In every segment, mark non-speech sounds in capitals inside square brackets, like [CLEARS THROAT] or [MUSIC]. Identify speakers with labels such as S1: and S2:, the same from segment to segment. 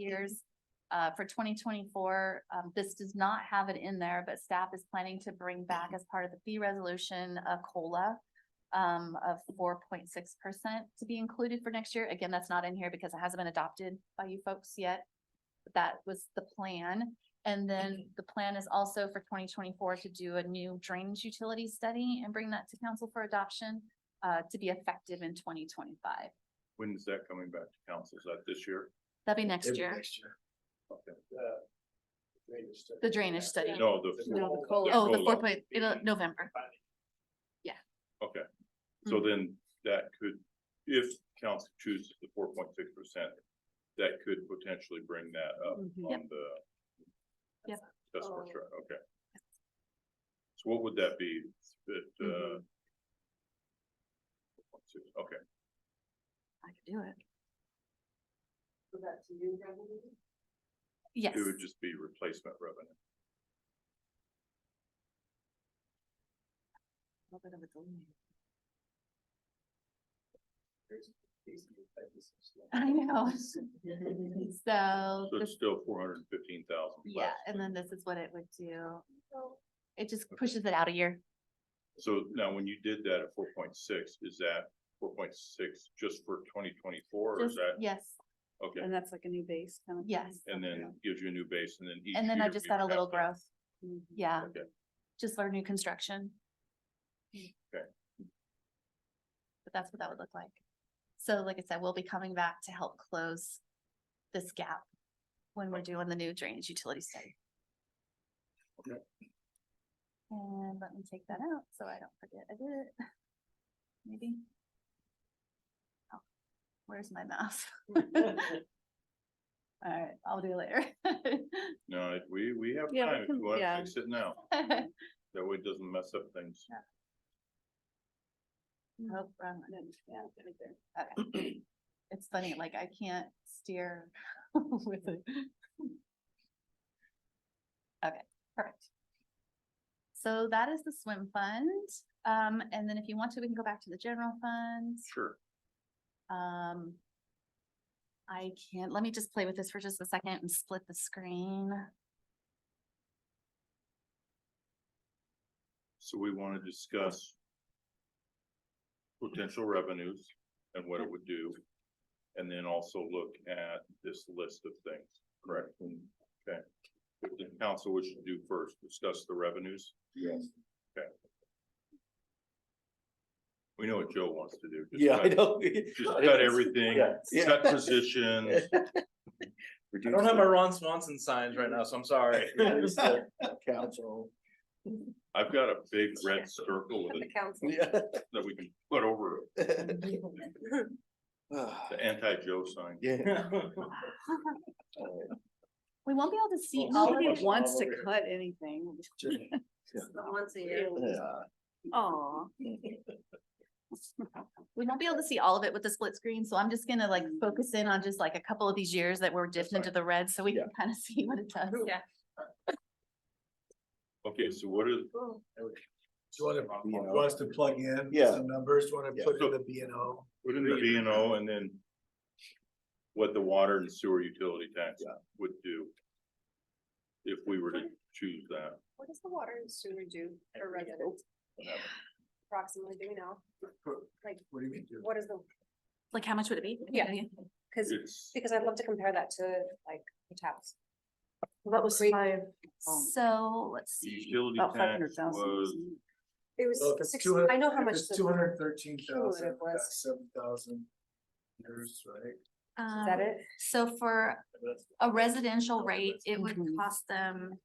S1: years. Uh, for twenty twenty-four, um, this does not have it in there, but staff is planning to bring back as part of the fee resolution, a COLA. Um, of four point six percent to be included for next year. Again, that's not in here because it hasn't been adopted by you folks yet. But That was the plan. And then the plan is also for twenty twenty-four to do a new drainage utility study and bring that to council for adoption. Uh, to be effective in twenty twenty-five.
S2: When is that coming back to council? Is that this year?
S1: That'd be next
S3: It'll be
S1: year.
S3: Next year.
S2: Okay.
S3: The drainage study.
S1: The drainage study.
S2: No, the,
S3: No, the
S1: Oh, the
S2: COLA.
S1: four point, it'll, November. Mm.
S2: okay. So
S1: Mm-hmm.
S2: then that could, if council chooses the four point six percent, that could potentially bring that up
S1: Mm-hmm. Yep.
S2: on the.
S1: Yep. Oh.
S2: That's for sure, okay. So what would that be? That,
S1: Mm-hmm.
S2: uh. Okay,
S1: I could do it.
S4: So that's new revenue?
S1: Yes,
S2: it would just be replacement revenue.
S1: [LAUGHS] I know. So,
S2: So it's
S1: this-
S2: still four hundred and fifteen thousand.
S1: yeah, and then this is what it would do.
S4: So
S1: It just pushes it out a year.
S2: So now when you did that at four point six, is that four point six just for twenty twenty-four or is
S1: Just-
S2: that?
S1: Yes,
S2: Okay,
S5: [LAUGHS] And that's like a new base kind [LAUGHS]
S6: [LAUGHS]
S5: of. thing.
S1: yes.
S2: and then gives you a new base and then. each
S1: And then I
S2: year
S1: just
S2: you
S1: got a
S2: have
S1: little
S2: that.
S1: growth.
S5: Mhm.
S1: Yeah,
S2: Okay.
S1: just for new construction. But that's what that would look like. So like I said, we'll be coming back to help close this gap when we're doing the new drainage utility study.
S2: Okay.
S1: And let me take that out so I don't forget I did it. Maybe. Oh, Where's my mouse? [LAUGHS] All right, I'll do it
S2: No, it- we, we have
S5: Yeah, we
S2: time if
S5: can-
S2: you want to
S5: yeah.
S2: fix it now.
S1: later. [LAUGHS]
S2: That way it doesn't mess up things.
S1: Nope, Oh, wrong one.
S5: And then, Yeah, right there.
S1: Okay. [CLEARS THROAT] It's funny, like I can't steer [LAUGHS] with it. Okay, perfect. So that is the swim fund. Um, and then if you want to, we can go back to the general fund.
S2: Sure.
S1: Um. I can't, let me just play with this for just a second and split the screen.
S2: So we want to discuss potential revenues and what it would do. And then also look at this list of things, correct? Okay. What the council wishes to do first, discuss the revenues.
S3: Yes.
S2: We know what Joe wants to do. just
S3: Yeah, I
S2: cut-
S6: [LAUGHS]
S3: know.
S2: Just cut everything,
S3: Yeah, yeah.
S2: cut positions.
S3: Reduce
S7: I don't have my
S3: the
S7: Ron Swanson signs right now, so I'm sorry.
S3: reduce
S7: [LAUGHS]
S3: the Council.
S2: I've got a big red circle with it
S4: council.
S3: Yeah.
S2: that we can put over the anti-Joe sign.
S3: Yeah.
S1: We won't be able to see
S3: Well,
S1: all of
S3: somebody
S1: it.
S5: Nobody wants to
S3: over here.
S5: cut anything.
S4: Once a year.
S3: Yeah.
S5: Aw.
S1: we won't be able to see all of it with the split screen, so I'm just gonna like
S5: Mm.
S1: focus in on just like a couple of these years that we're dipped
S3: fine.
S1: into the red, so we
S3: Yeah.
S1: can kind of [LAUGHS] see what it does.
S4: Yeah.
S2: Okay, so what is,
S6: Do you want to,
S3: You know.
S6: wants to plug in
S3: Yeah.
S6: some numbers, do you want
S3: Yeah.
S6: to put in the B and O?
S2: Put in the B and O and then what the water and sewer utility tax
S3: Yeah.
S2: would do. If we were to choose that,
S4: What does the water and sewer do for residents? Approximately, do we know? Like,
S6: What do you mean? do?
S4: what is the,
S1: Like, how much would it be?
S4: Yeah. cause,
S2: it's,
S4: because I'd love to compare that to like the taps.
S5: That was
S4: Great.
S5: five, um,
S1: So, let's
S2: the
S1: see,
S2: utility
S5: about five
S2: tax
S5: hundred
S2: was,
S5: thousand.
S4: It
S6: Well, Oh, if
S4: was
S6: it's
S4: six,
S6: 200
S4: I know how
S6: if
S4: much.
S6: It's
S4: the-
S6: two hundred thirteen thousand,
S4: cumulative was.
S6: seven thousand years, right?
S4: Is that
S1: um,
S4: it?
S1: so for a residential rate, it would
S5: Mhm.
S1: cost them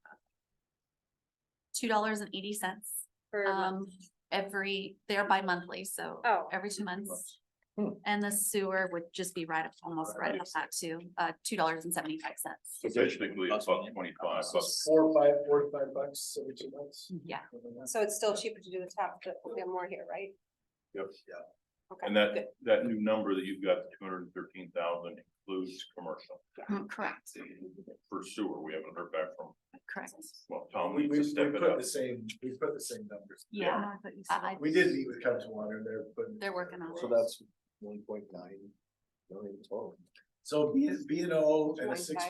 S1: two dollars and eighty cents,
S4: For a month?
S1: um, every, they're bi-monthly, so
S4: Oh.
S1: every two months.
S3: Hmm.
S1: And the sewer would just be right up, almost right up that too, uh, two dollars and seventy-five cents,
S2: so basically it's about twenty-five bucks.
S6: Four, five, four, to five bucks every two months.
S1: yeah.
S4: So it's still cheaper to do the tap, but we have more here, right?
S2: Yep.
S4: Okay.
S2: And
S4: good.
S2: that, that new number that you've got, two hundred and thirteen thousand includes commercial.
S1: Mm, Correct,
S2: For sewer, we haven't heard back from,
S1: correct.
S2: well,
S6: We,
S2: Tom
S6: we,
S2: needs
S6: we
S2: to step it
S6: put
S2: up.
S6: the same, we put the same numbers.
S1: Yeah, I- I-
S6: We did meet with Council Water, they're putting.
S1: They're working on it.
S3: So that's one point nine million total.
S4: So B, B and O and a
S3: Twenty-five.
S4: six